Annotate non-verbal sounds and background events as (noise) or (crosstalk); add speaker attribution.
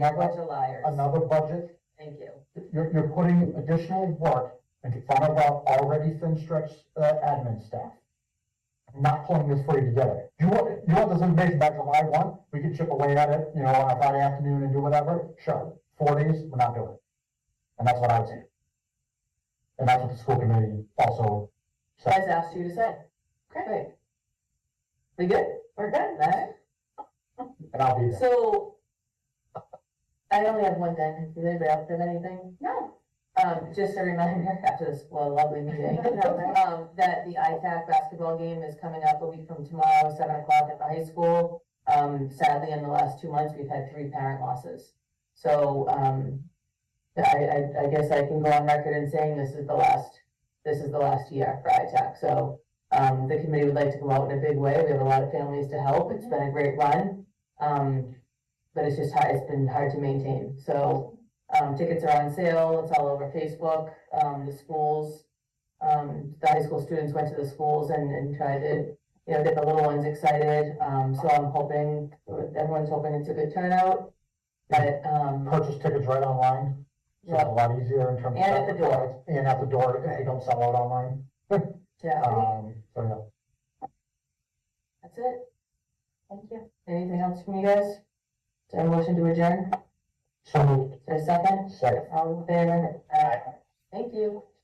Speaker 1: Now,
Speaker 2: bunch of liars.
Speaker 1: another budget,
Speaker 2: Thank you.
Speaker 1: you're, you're putting additional work into front of our already thin stretched, uh, admin staff. Not pulling this free together. You want, you want this information by July one, we can chip away at it, you know, on a Friday afternoon and do whatever, sure, four days, we're not doing it. And that's what I would say. And that's what the school committee also said.
Speaker 2: Guys asked you to say. Great. We good? We're good, right?
Speaker 1: And I'll be there.
Speaker 2: So, I only have one thing. Does anybody else have anything?
Speaker 3: No.
Speaker 2: Um, just a reminder (laughs) after this well, lovely meeting, um, that the ITAC basketball game is coming up a week from tomorrow, seven o'clock at the high school. Um, sadly, in the last two months, we've had three parent losses. So, um, I, I, I guess I can go on record in saying this is the last, this is the last year for ITAC. So, um, the committee would like to come out in a big way. We have a lot of families to help. It's been a great run. Um, but it's just hard, it's been hard to maintain. So, um, tickets are on sale, it's all over Facebook, um, the schools, um, the high school students went to the schools and, and tried to, you know, get the little ones excited, um, so I'm hoping, everyone's hoping it's a good turnout. But, um,
Speaker 1: purchase tickets right online, so it's a lot easier in terms of.
Speaker 2: And at the door.
Speaker 1: And at the door, if they don't sell out online,
Speaker 2: yeah,
Speaker 1: um, so yeah.
Speaker 2: that's it. Thank you. Anything else from you guys? Is there a motion to adjourn?
Speaker 1: So moved,
Speaker 2: Is there a second?
Speaker 1: second.
Speaker 2: All in favor? Aye. Thank you.